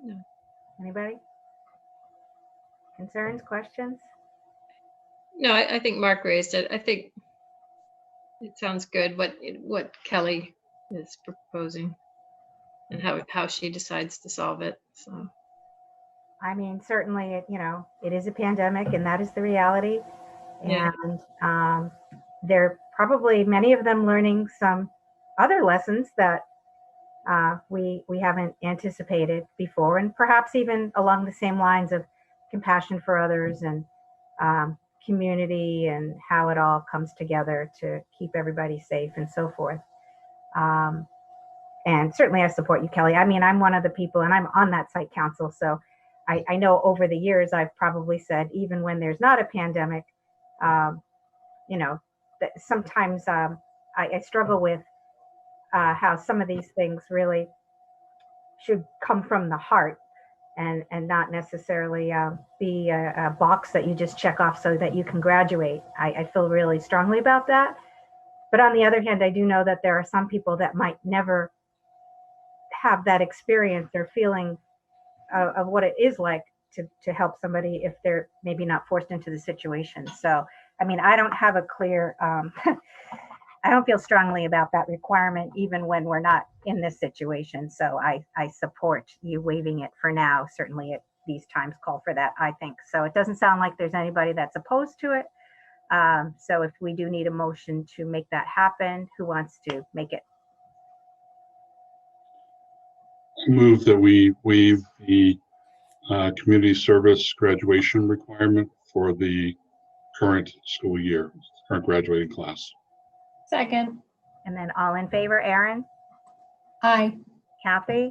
No. Anybody? Concerns, questions? No, I, I think Mark raised it. I think it sounds good what, what Kelly is proposing and how, how she decides to solve it. So, I mean, certainly, it, you know, it is a pandemic and that is the reality. Yeah. And um, they're probably many of them learning some other lessons that uh, we we haven't anticipated before, and perhaps even along the same lines of compassion for others and um, community and how it all comes together to keep everybody safe and so forth. Um, and certainly, I support you, Kelly. I mean, I'm one of the people, and I'm on that site council, so I, I know over the years I've probably said, even when there's not a pandemic, um, you know, that sometimes um, I, I struggle with uh, how some of these things really should come from the heart and and not necessarily um, be a, a box that you just check off so that you can graduate. I, I feel really strongly about that. But on the other hand, I do know that there are some people that might never have that experience or feeling of, of what it is like to, to help somebody if they're maybe not forced into the situation. So, I mean, I don't have a clear, um, I don't feel strongly about that requirement, even when we're not in this situation. So I, I support you waiving it for now. Certainly at these times call for that, I think. So it doesn't sound like there's anybody that's opposed to it. Um, so if we do need a motion to make that happen, who wants to make it? Move that we waive the uh, community service graduation requirement for the current school year, current graduating class. Second. And then all in favor, Aaron, Aye. Kathy,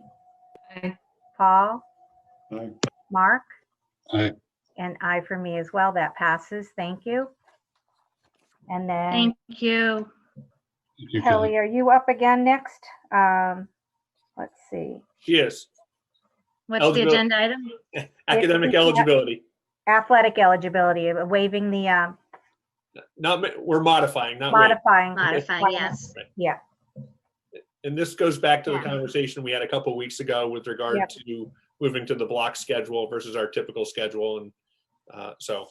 I, Paul? Aye. Mark? Aye. And I for me as well. That passes. Thank you. And then Thank you. Thank you, Kelly. Kelly, are you up again next? Um, let's see. Yes, What's the Eligibility. agenda item? academic Yeah. eligibility. Athletic eligibility, uh, waiving the um, Not, ma- we're modifying, not waiving. modifying. Modify, yes. Yeah, And this goes back to the Yeah. conversation we had a couple weeks ago with regard Yep. to moving to the block schedule versus our typical schedule. And uh, so,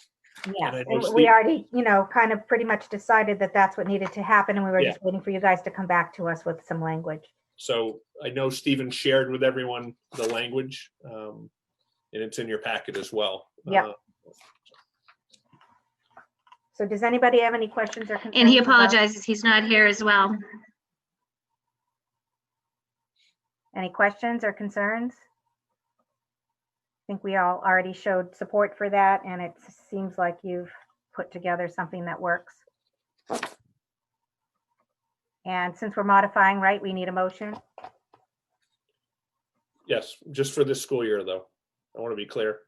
yeah. And I And just We think- already, you know, kind of pretty much decided that that's what needed to happen and we were Yeah. just waiting for you guys to come back to us with some language. so I know Stephen shared with everyone the language. um, And it's in your packet as well. Yep. Uh, So does anybody have any questions or concerns? And he about- apologizes, he's not here as well. Any questions or concerns? I think we all already showed support for that, and it seems like you've put together something that works. And since we're modifying, right, we need a motion. Yes, just for this school year, though. I want to be clear.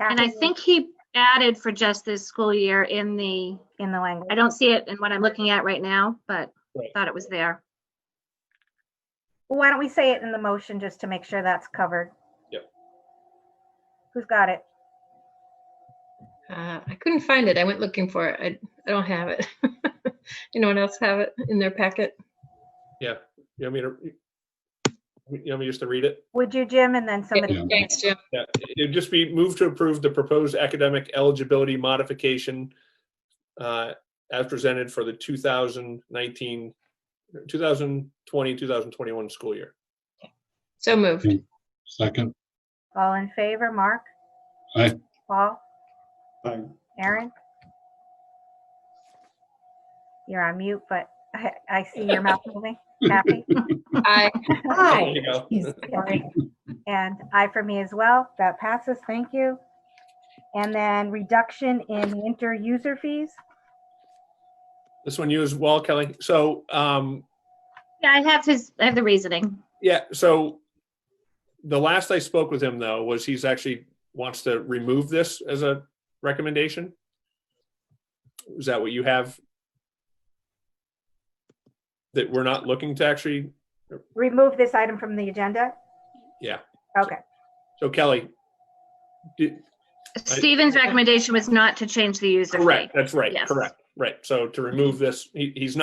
And I Kathy, think he added for just this school year in the, In the I language. don't see it in what I'm looking at right now, but Right. thought it was there. Well, Why don't we say it in the motion just to make sure that's covered? Yep. Who's got it? uh, I couldn't find it. I went looking for it. I, I don't have it. Anyone else have it in their packet? Yeah. You want me to, you want me just to read it? Would you, Jim, and then somebody? Yeah. Thanks, Jim. Yeah, it'd just be moved to approve the proposed academic eligibility modification uh, as presented for the 2019, 2020, 2021 school year. So moved. Second, All in favor, Mark? Aye. Paul? Aye. Aaron? You're on mute, but I, I see your mouth moving. Kathy? I, There Aye. you go. Sorry. And I for me as well. That passes. Thank you. And then reduction in winter user fees. This one you as well, Kelly. So um, Yeah, I have his, I have the reasoning. Yeah, so the last I spoke with him though was he's actually wants to remove this as a recommendation. Is that what you have? That we're not looking to actually, Remove this item from the agenda? Yeah. Okay, so Kelly. did- Stephen's recommendation was not to change the user fee. Correct, that's right, Yes. correct, right. So to remove this, he, he's not